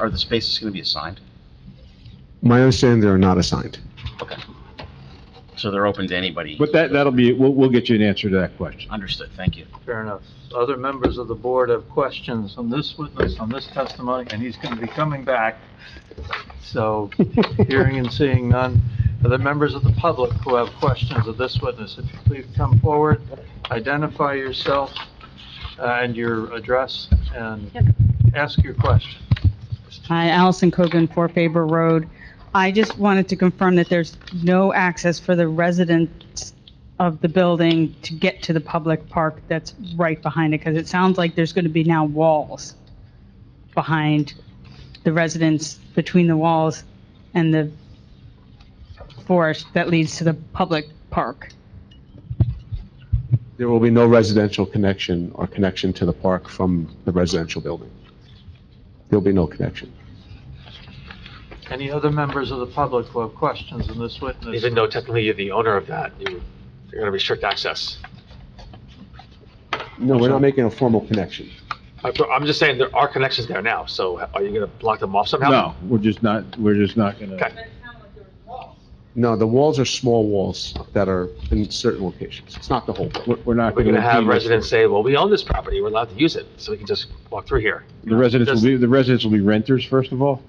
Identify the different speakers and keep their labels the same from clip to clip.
Speaker 1: Are the spaces going to be assigned?
Speaker 2: My understanding, they are not assigned.
Speaker 1: So they're open to anybody?
Speaker 3: But that, that'll be, we'll, we'll get you an answer to that question.
Speaker 1: Understood, thank you.
Speaker 4: Fair enough. Other members of the board have questions on this witness, on this testimony, and he's going to be coming back. So hearing and seeing none. Other members of the public who have questions of this witness, if you please come forward, identify yourself uh, and your address, and
Speaker 5: Yep.
Speaker 4: ask your question.
Speaker 5: Hi, Allison Cogan, Four Faber Road. I just wanted to confirm that there's no access for the residents of the building to get to the public park that's right behind it, because it sounds like there's going to be now walls behind the residents, between the walls and the forest that leads to the public park.
Speaker 2: There will be no residential connection or connection to the park from the residential building. There'll be no connection.
Speaker 4: Any other members of the public who have questions on this witness?
Speaker 6: Even though technically you're the owner of that, you- you're going to restrict access.
Speaker 2: No, we're not making a formal connection.
Speaker 6: I- I'm just saying there are connections there now, so are you going to block them off somehow?
Speaker 3: No, we're just not, we're just not gonna,
Speaker 6: Okay.
Speaker 2: No, the walls are small walls that are in certain locations. It's not the whole building.
Speaker 3: we're we're not
Speaker 6: We're
Speaker 3: gonna.
Speaker 6: going to have
Speaker 3: impede this.
Speaker 6: residents say, well, we own this property, we're allowed to use it, so we can just walk through here.
Speaker 3: The residents will be, the residents will be renters, first of all.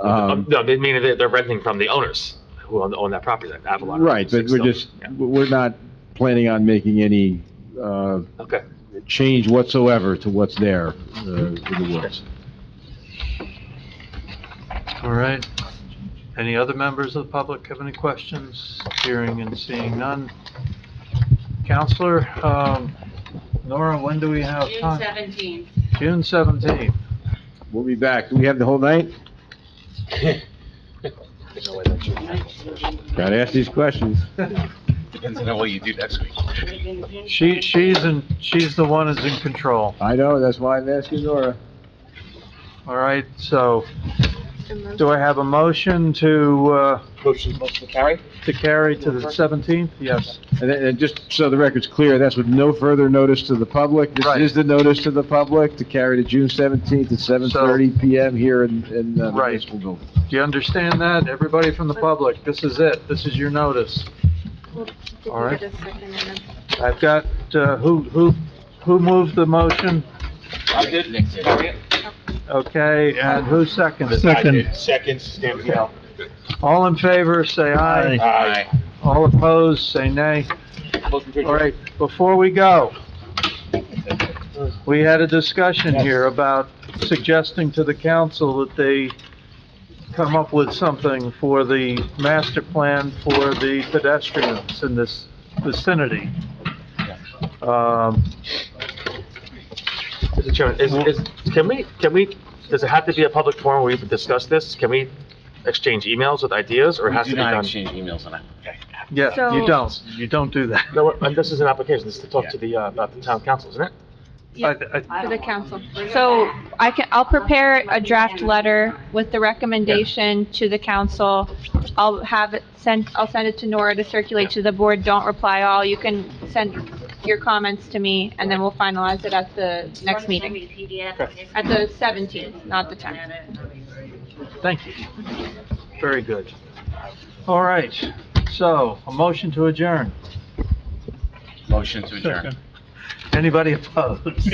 Speaker 6: Um,
Speaker 3: Um,
Speaker 6: No, they mean that they're renting from the owners who own, own that property, that Avalon.
Speaker 3: right, but we're just, we're not planning on making any, uh,
Speaker 6: Okay.
Speaker 3: change whatsoever to what's there, uh, in the woods.
Speaker 4: All right. Any other members of the public have any questions? Hearing and seeing none. Counselor, um, Nora, when do we have
Speaker 7: June
Speaker 4: time?
Speaker 7: seventeenth.
Speaker 4: June seventeenth.
Speaker 3: We'll be back. Do we have the whole night? Gotta ask these questions.
Speaker 1: Depends on what you do next week.
Speaker 4: She, she's in, she's the one who's in control.
Speaker 3: I know, that's why I'm asking Nora.
Speaker 4: All right, so do I have a motion to, uh,
Speaker 6: Motion, motion carry?
Speaker 4: to carry to the seventeenth? Yes.
Speaker 3: And, and just so the record's clear, that's with no further notice to the public. This
Speaker 4: Right.
Speaker 3: is the notice to the public to carry to June seventeenth at seven thirty PM here in, in uh, the
Speaker 4: Right.
Speaker 3: municipal building.
Speaker 4: Do you understand that? Everybody from the public, this is it. This is your notice. All right. I've got, uh, who, who, who moved the motion?
Speaker 6: I did.
Speaker 4: Okay, and who seconded?
Speaker 6: Second, Stamp.
Speaker 4: All in favor, say aye.
Speaker 6: Aye.
Speaker 4: All opposed, say nay. All right, before we go, we had a discussion here about suggesting to the council that they come up with something for the master plan for the pedestrians in this vicinity. Um,
Speaker 6: Mr. Chairman, is, is, can we, can we, does it have to be a public forum where we can discuss this? Can we exchange emails with ideas, or it has
Speaker 1: We
Speaker 6: to
Speaker 1: do
Speaker 6: be
Speaker 1: not
Speaker 6: done?
Speaker 1: exchange emails on that.
Speaker 4: yeah, you
Speaker 5: So-
Speaker 4: don't, you don't do that.
Speaker 6: No, and this is an application, this is to talk to the, uh, about the town council, isn't it?
Speaker 4: I- I-
Speaker 8: For the council. So I can, I'll prepare a draft letter with the recommendation to the council. I'll have it sent, I'll send it to Nora to circulate to the board. Don't reply all. You can send your comments to me and then we'll finalize it at the next meeting. At the 17th, not the 10th.
Speaker 4: Thank you. Very good. All right, so a motion to adjourn.
Speaker 1: Motion to adjourn.
Speaker 4: Anybody opposed?